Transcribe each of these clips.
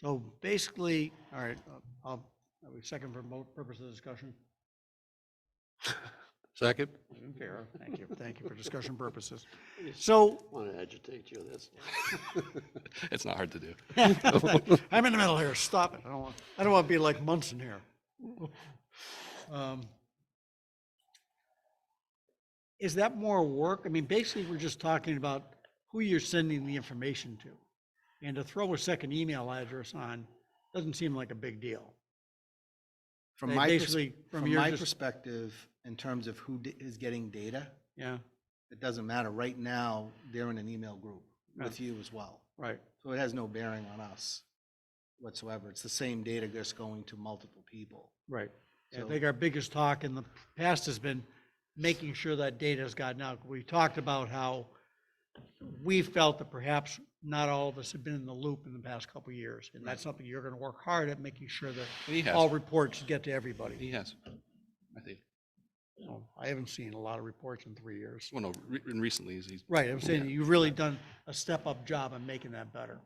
So basically, all right, uh, I'll, I would second for mo- purpose of discussion. Second? Fair. Thank you, thank you for discussion purposes. So, Want to agitate you, that's. It's not hard to do. I'm in the middle here, stop it, I don't want, I don't want to be like Munson here. Um, Is that more work? I mean, basically, we're just talking about who you're sending the information to. And to throw a second email address on doesn't seem like a big deal. From They my, pers- basically- from from your my dis- perspective, in terms of who di- is getting data, Yeah, it doesn't matter. Right now, they're in an email group Yeah. with you as well. right. So it has no bearing on us whatsoever. It's the same data just going to multiple people. Right. I So- think our biggest talk in the past has been making sure that data's gotten out. We talked about how we felt that perhaps not all of us have been in the loop in the past couple of years. And that's something you're gonna work hard at, making sure that He all has, reports get to everybody. he has. I think, So, I haven't seen a lot of reports in three years. well, no, re- and recently is he's, Right, I'm saying you've really done a step-up job in making that better.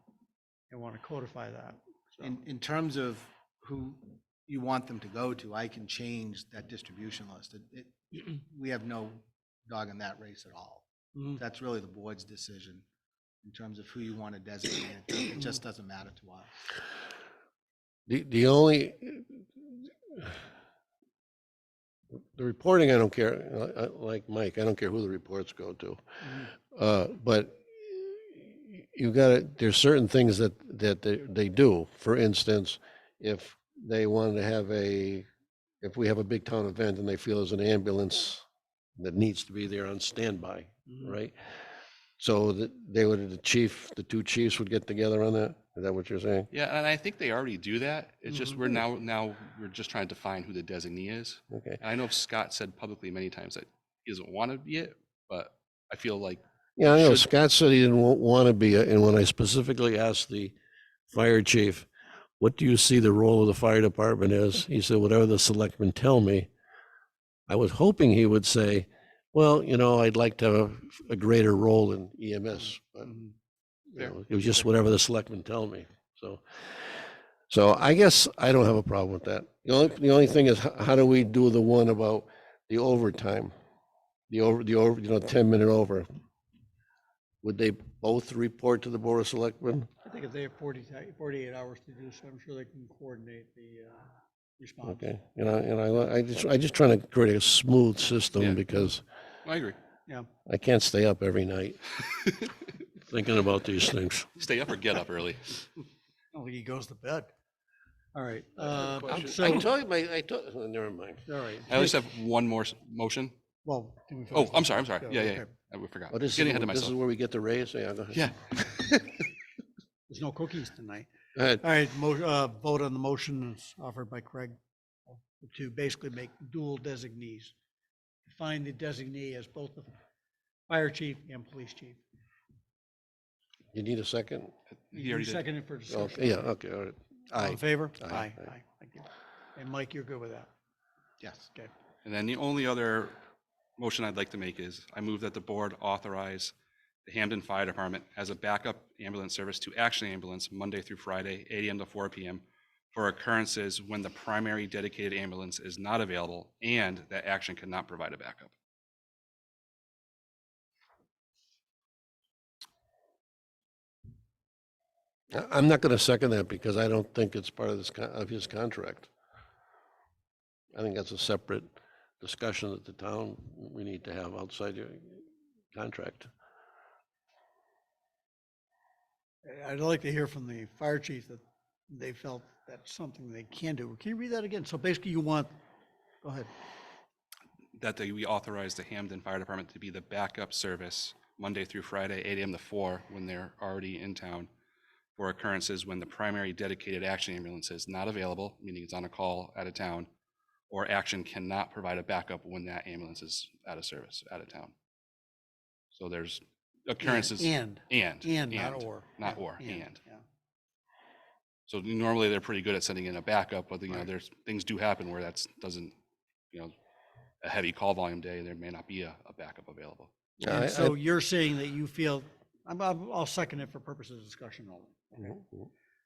And wanna codify that. So, In, in terms of who you want them to go to, I can change that distribution list. It, it, we have no dog in that race at all. mhm. That's really the board's decision in terms of who you want to designate. It just doesn't matter to us. The, the only, the reporting, I don't care, uh, uh, like Mike, I don't care who the reports go to. Uh, But you gotta, there's certain things that, that they, they do. For instance, if they wanted to have a, if we have a big town event and they feel there's an ambulance that needs to be there on standby, mm-hmm. right? So that they would, the chief, the two chiefs would get together on that? Is that what you're saying? yeah, and I think they already do that. It's just, Mhm. we're now, now, we're just trying to define who the designee is. Okay. And I know Scott said publicly many times that he doesn't want to be it, but I feel like, Yeah, I know should- Scott said he didn't want to be, a- and when I specifically asked the fire chief, what do you see the role of the fire department is? He said, whatever the selectmen tell me. I was hoping he would say, well, you know, I'd like to have a greater role in EMS. but, you Fair. know, It was just whatever the selectmen tell me, so. So I guess I don't have a problem with that. The only, the only thing is, h- how do we do the one about the overtime? The over, the over, you know, ten minute over. Would they both report to the Board of Selectmen? I think if they have 40 ti- 48 hours to do so, I'm sure they can coordinate the uh, response. Okay, you know, and I, I just, I just trying to create a smooth Yeah. system because I agree. Yeah, I can't stay up every night thinking about these things. Stay up or get up early. I don't think he goes to bed. All right, I uh, have a question. so, I all told you, my, I told, oh, never mind. right. I just have one more s- motion. Well. did we Oh, finish I'm that? sorry, I'm sorry. Yeah, yeah, yeah. okay. I we forgot. Oh, this is, Getting ahead of this is myself. where we get the raise, yeah, go ahead. Yeah, There's no cookies tonight. Go ahead. All right, mo, uh, vote on the motion is offered by Craig to basically make dual designees. Define the designee as both the fire chief and police chief. You need a second? he already did. Seconded for Oh, discussion. Yeah, okay, all right. All Aye. in favor? Aye. Aye, Aye. aye, thank you. And Mike, you're good with that? Yes. Okay. And then the only other motion I'd like to make is I move that the board authorize the Hamden Fire Department as a backup ambulance service to Action Ambulance Monday through Friday, 8 AM to 4 PM for occurrences when the primary dedicated ambulance is not available and that Action cannot provide a backup. I- I'm not gonna second that because I don't think it's part of this, con- of his contract. I think that's a separate discussion that the town, we need to have outside your contract. I'd like to hear from the fire chief that they felt that's something they can do. Can you read that again? So basically you want, go ahead. That they, we authorize the Hamden Fire Department to be the backup service Monday through Friday, 8 AM to 4 when they're already in town for occurrences when the primary dedicated action ambulance is not available, meaning it's on a call out of town, or action cannot provide a backup when that ambulance is out of service, out of town. So there's occurrences and, And, and, and. not or. not Yeah, or, and. yeah. So normally they're pretty good at sending in a backup, but you know, there's, things do happen where that's, doesn't, you know, a heavy call volume day, there may not be a, a backup available. I- I- And so you're saying that you feel, I'm, I'm- I'll second it for purposes of discussion only. Mhm.